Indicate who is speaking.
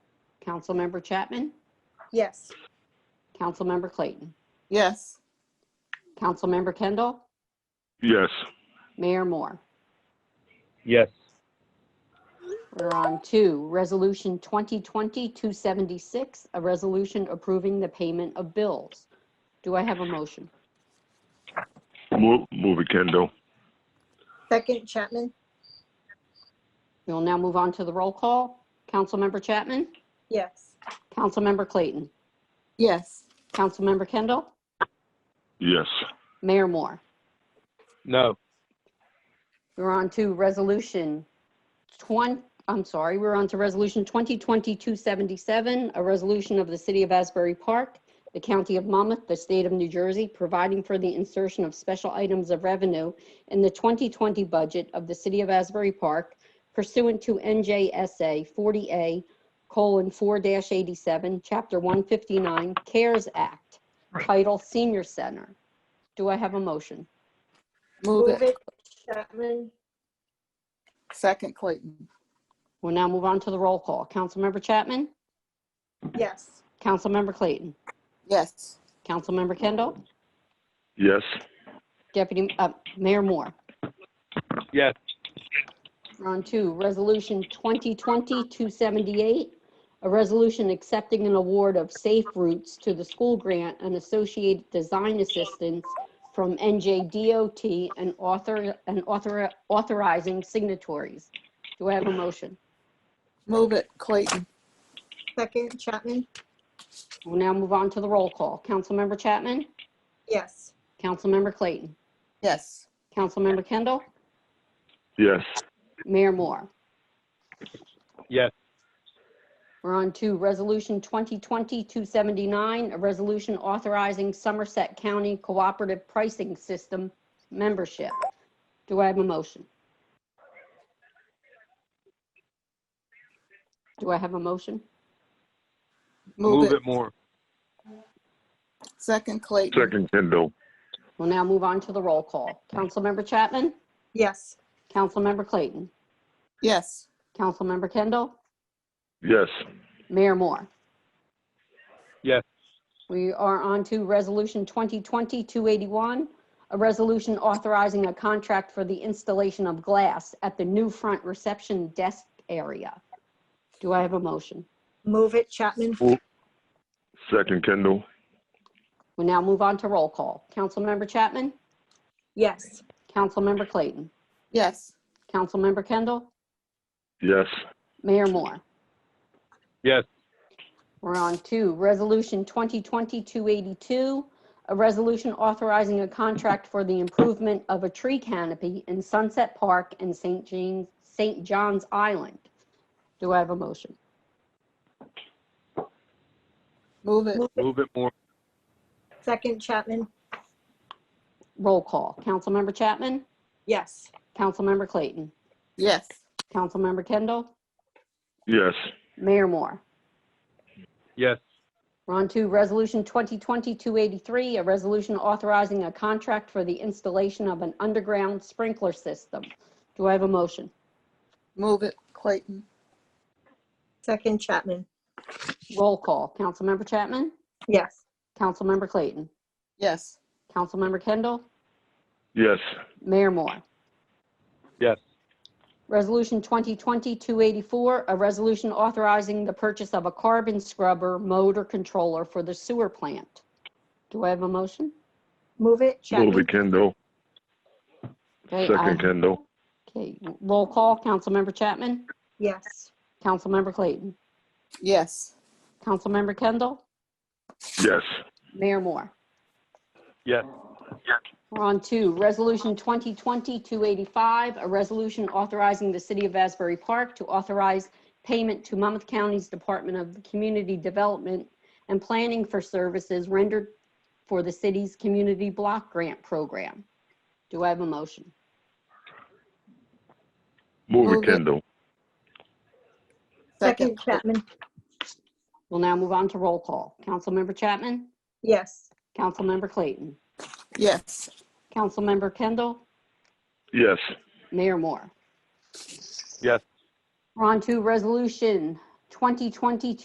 Speaker 1: Councilmember Chapman,
Speaker 2: Yes.
Speaker 1: Councilmember Clayton,
Speaker 2: Yes.
Speaker 1: Councilmember Kendall,
Speaker 3: Yes.
Speaker 1: Mayor Moore.
Speaker 4: Yes.
Speaker 1: We're on to Resolution 2020-276, a resolution approving the payment of bills. Do I have a motion?
Speaker 3: Move, move it, Kendall.
Speaker 2: Second Chapman?
Speaker 1: We will now move on to the roll call. Councilmember Chapman,
Speaker 2: Yes.
Speaker 1: Councilmember Clayton,
Speaker 2: Yes.
Speaker 1: Councilmember Kendall,
Speaker 3: Yes.
Speaker 1: Mayor Moore.
Speaker 4: No.
Speaker 1: We're on to resolution 20, I'm sorry, we're on to resolution 2020-277, a resolution of the City of Asbury Park, the County of Monmouth, the State of New Jersey, providing for the insertion of special items of revenue in the 2020 budget of the City of Asbury Park pursuant to NJSA 40A: colon 4-87, Chapter 159, CARES Act, title Senior Center. Do I have a motion?
Speaker 2: Move it. Chapman?
Speaker 5: Second Clayton.
Speaker 1: We'll now move on to the roll call. Councilmember Chapman?
Speaker 2: Yes.
Speaker 1: Councilmember Clayton?
Speaker 5: Yes.
Speaker 1: Councilmember Kendall?
Speaker 3: Yes.
Speaker 1: Deputy, uh, Mayor Moore?
Speaker 4: Yes.
Speaker 1: We're on to Resolution 2020-278, a resolution accepting an award of Safe Routes to the school grant and associated design assistance from NJDOT and author, and author, authorizing signatories. Do I have a motion?
Speaker 5: Move it Clayton.
Speaker 2: Second Chapman?
Speaker 1: We'll now move on to the roll call. Councilmember Chapman?
Speaker 2: Yes.
Speaker 1: Councilmember Clayton?
Speaker 5: Yes.
Speaker 1: Councilmember Kendall?
Speaker 3: Yes.
Speaker 1: Mayor Moore?
Speaker 4: Yes.
Speaker 1: We're on to Resolution 2020-279, a resolution authorizing Somerset County Cooperative Pricing System membership. Do I have a motion? Do I have a motion?
Speaker 5: Move it.
Speaker 4: more.
Speaker 5: Second Clayton.
Speaker 3: Second, Kendall.
Speaker 1: We'll now move on to the roll call. Councilmember Chapman?
Speaker 2: Yes.
Speaker 1: Councilmember Clayton?
Speaker 5: Yes.
Speaker 1: Councilmember Kendall?
Speaker 3: Yes.
Speaker 1: Mayor Moore?
Speaker 4: Yes.
Speaker 1: We are on to Resolution 2020-281, a resolution authorizing a contract for the installation of glass at the new front reception desk area. Do I have a motion?
Speaker 2: Move it Chapman?
Speaker 3: Second, Kendall.
Speaker 1: We now move on to roll call. Councilmember Chapman?
Speaker 2: Yes.
Speaker 1: Councilmember Clayton?
Speaker 5: Yes.
Speaker 1: Councilmember Kendall?
Speaker 3: Yes.
Speaker 1: Mayor Moore?
Speaker 4: Yes.
Speaker 1: We're on to Resolution 2020-282, a resolution authorizing a contract for the improvement of a tree canopy in Sunset Park and St. Jean, St. John's Island. Do I have a motion?
Speaker 5: Move it.
Speaker 4: Move it more.
Speaker 2: Second Chapman?
Speaker 1: Roll call. Councilmember Chapman?
Speaker 2: Yes.
Speaker 1: Councilmember Clayton?
Speaker 5: Yes.
Speaker 1: Councilmember Kendall?
Speaker 3: Yes.
Speaker 1: Mayor Moore?
Speaker 4: Yes.
Speaker 1: We're on to Resolution 2020-283, a resolution authorizing a contract for the installation of an underground sprinkler system. Do I have a motion?
Speaker 5: Move it Clayton.
Speaker 2: Second Chapman?
Speaker 1: Roll call. Councilmember Chapman?
Speaker 2: Yes.
Speaker 1: Councilmember Clayton.
Speaker 5: Yes.
Speaker 1: Councilmember Kendall.
Speaker 3: Yes.
Speaker 1: Mayor Moore.
Speaker 4: Yes.
Speaker 1: Resolution 2020-284, a resolution authorizing the purchase of a carbon scrubber motor controller for the sewer plant. Do I have a motion?
Speaker 2: Move it
Speaker 3: Move
Speaker 2: Chapman?
Speaker 3: it, Kendall.
Speaker 1: Okay, I-
Speaker 3: Second, Kendall.
Speaker 1: Okay, roll call. Councilmember Chapman.
Speaker 2: Yes.
Speaker 1: Councilmember Clayton.
Speaker 5: Yes.
Speaker 1: Councilmember Kendall.
Speaker 3: Yes.
Speaker 1: Mayor Moore.
Speaker 4: Yes.
Speaker 1: We're on to Resolution 2020-285, a resolution authorizing the City of Asbury Park to authorize payment to Monmouth County's Department of Community Development and Planning for services rendered for the city's Community Block Grant Program. Do I have a motion?
Speaker 3: Move
Speaker 5: Move
Speaker 3: it,
Speaker 5: it.
Speaker 3: Kendall.
Speaker 2: Second Chapman?
Speaker 1: We'll now move on to roll call. Councilmember Chapman?
Speaker 2: Yes.
Speaker 1: Councilmember Clayton?
Speaker 5: Yes.
Speaker 1: Councilmember Kendall?
Speaker 3: Yes.
Speaker 1: Mayor Moore?
Speaker 4: Yes.
Speaker 1: We're on to Resolution 2020